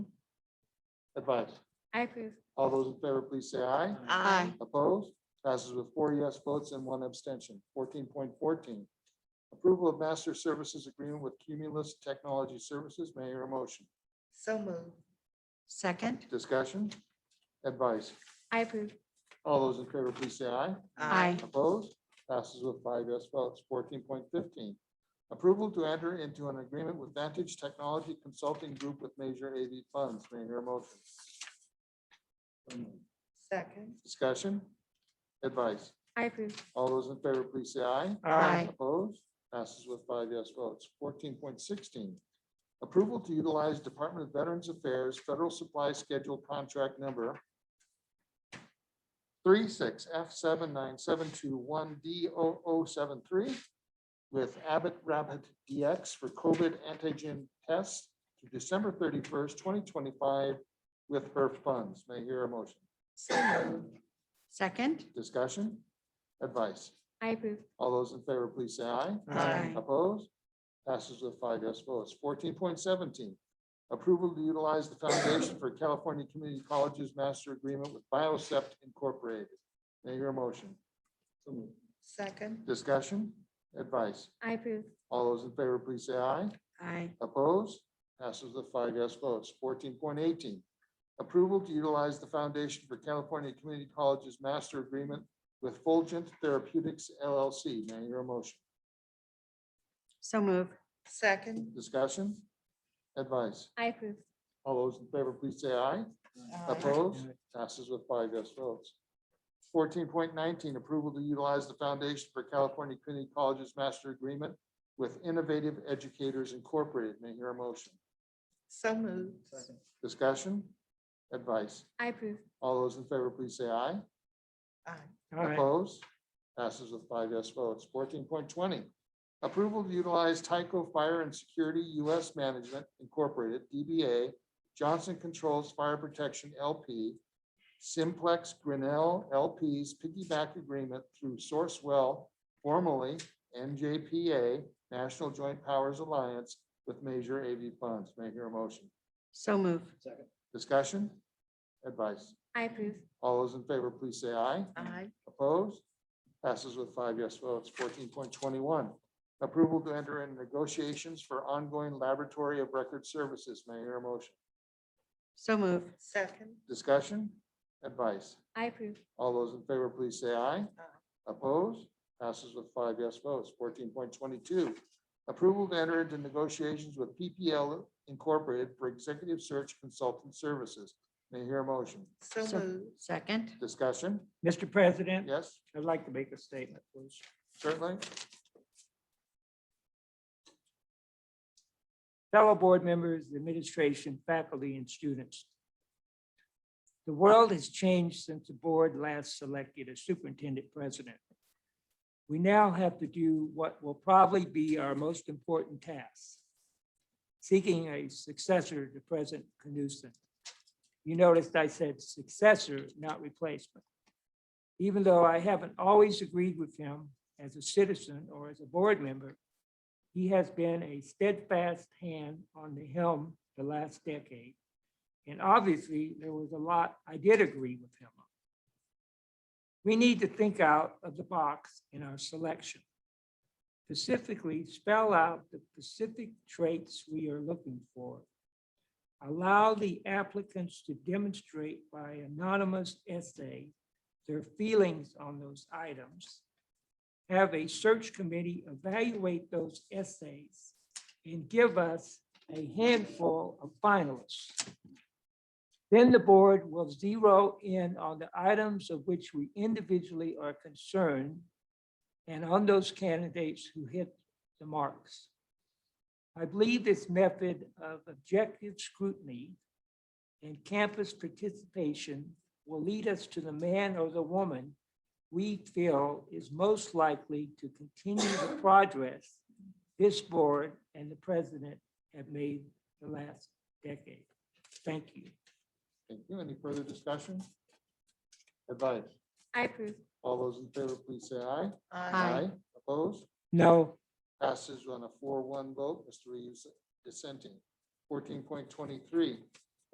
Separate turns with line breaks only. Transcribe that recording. advice.
I approve.
All those in favor, please say aye.
Aye.
Opposed? Passes with four yes votes and one abstention. Fourteen point fourteen. Approval of master services agreement with Cumulus Technology Services. May I hear a motion?
So moved. Second?
Discussion? Advice?
I approve.
All those in favor, please say aye. Opposed? Passes with five yes votes. Fourteen point fifteen. Approval to enter into an agreement with Vantage Technology Consulting Group with major AV funds. May I hear a motion?
Second?
Discussion? Advice?
I approve.
All those in favor, please say aye.
Aye.
Opposed? Passes with five yes votes. Fourteen point sixteen. Approval to utilize Department of Veterans Affairs Federal Supply Schedule Contract Number 36 F seven nine seven two one D 73 with Abbott Rapid DX for COVID antigen tests to December thirty-first, twenty twenty-five with HERF funds. May I hear a motion?
So moved. Second?
Discussion? Advice?
I approve.
All those in favor, please say aye.
Aye.
Opposed? Passes with five yes votes. Fourteen point seventeen, approval to utilize the Foundation for California Community Colleges Master Agreement with Biocept Incorporated. May I hear a motion?
Second?
Discussion? Advice?
I approve.
All those in favor, please say aye.
Aye.
Opposed? Passes with five yes votes. Fourteen point eighteen, approval to utilize the Foundation for California Community Colleges Master Agreement with Fulgent Therapeutics LLC. May I hear a motion?
So moved. Second?
Discussion? Advice?
I approve.
All those in favor, please say aye. Opposed? Passes with five yes votes. Fourteen point nineteen, approval to utilize the Foundation for California Community Colleges Master Agreement with Innovative Educators Incorporated. May I hear a motion?
So moved.
Discussion? Advice?
I approve.
All those in favor, please say aye.
Aye.
Opposed? Passes with five yes votes. Fourteen point twenty, approval to utilize Tyco Fire and Security U.S. Management Incorporated, DBA, Johnson Controls Fire Protection LP, Simplex Grinnell LP's piggyback agreement through Sourcewell, formerly NJPA, National Joint Powers Alliance with major AV funds. May I hear a motion?
So moved.
Discussion? Advice?
I approve.
All those in favor, please say aye.
Aye.
Opposed? Passes with five yes votes. Fourteen point twenty-one, approval to enter in negotiations for ongoing laboratory of record services. May I hear a motion?
So moved. Second?
Discussion? Advice?
I approve.
All those in favor, please say aye.
Aye.
Opposed? Passes with five yes votes. Fourteen point twenty-two, approval to enter into negotiations with PPL Incorporated for executive search consultant services. May I hear a motion?
So moved. Second?
Discussion?
Mr. President,
Yes,
I'd like to make a statement, please.
certainly.
Fellow board members, the administration, faculty, and students. The world has changed since the board last selected a superintendent president. We now have to do what will probably be our most important task, seeking a successor to President Knudsen. You noticed I said successor, not replacement. Even though I haven't always agreed with him as a citizen or as a board member, he has been a steadfast hand on the helm the last decade. And obviously, there was a lot I did agree with him on. We need to think out of the box in our selection. Specifically, spell out the specific traits we are looking for. Allow the applicants to demonstrate by anonymous essay their feelings on those items have a search committee evaluate those essays and give us a handful of finalists. Then the board will zero in on the items of which we individually are concerned and on those candidates who hit the marks. I believe this method of objective scrutiny and campus participation will lead us to the man or the woman we feel is most likely to continue the progress this board and the president have made the last decade. Thank you.
Thank you. Any further discussion? Advice?
I approve.
All those in favor, please say aye.
Aye.
Opposed?
No,
Passes on a four-one vote. Mr. Reeves dissenting. Fourteen point twenty-three,